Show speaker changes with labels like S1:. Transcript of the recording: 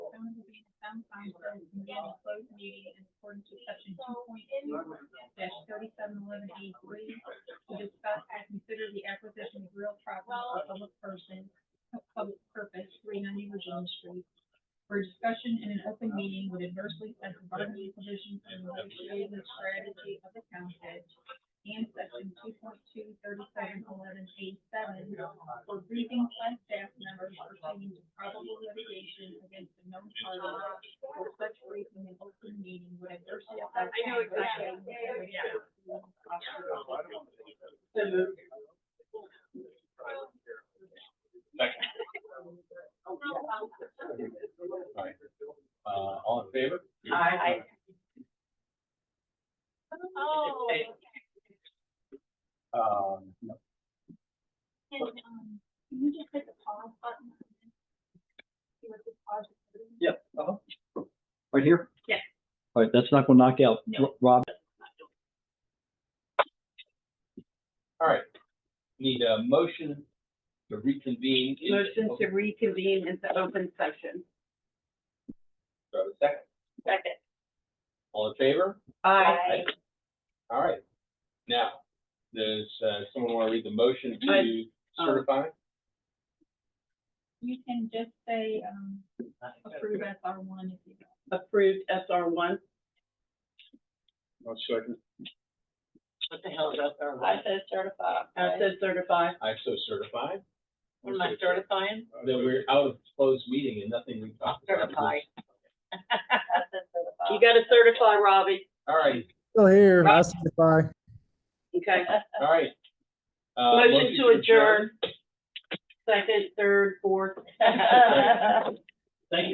S1: Adam Feinberg, began a closed meeting in accordance with section two point two dash thirty-seven eleven E three to discuss and consider the acquisition of real property for public person, public purpose, three ninety Regina Street, where discussion in an open meeting would adversely affect the bargaining position and the negotiating strategy of the township, and section two point two thirty-seven eleven A seven for briefing by staff members pertaining to probable litigation against a known party or such briefing in open meeting would adversely affect.
S2: I know exactly.
S1: So moved.
S3: Alright, uh, all in favor?
S2: Aye.
S4: Oh.
S3: Um, no,
S1: And, um, can you just hit the pause button? See what the pause is?
S5: Right here?
S1: Yeah.
S5: All right, that's not gonna knock out
S1: No.
S5: Ro- Rob.
S3: alright. Need a motion to reconvene. in-
S2: Motion to reconvene into open session.
S3: Do I have a Second,
S4: Second.
S3: all in favor?
S4: Aye.
S3: Alright, now, does, uh, someone wanna read the motion to
S2: Aye.
S4: um,
S3: certify?
S1: You can just say, um, approve S R one if you.
S2: Approved SR one.
S3: One second.
S4: What the hell is that? I said certified.
S2: I said certified.
S3: I so certify.
S4: Am I certifying?
S3: That we're out of closed meeting and nothing we talked about.
S4: Certify. I said certified.
S2: You gotta certify, Robbie.
S3: Alright,
S6: Still here, I certify.
S2: Okay.
S3: alright. Uh,
S2: Motion to adjourn. Second, third, fourth.
S4: got.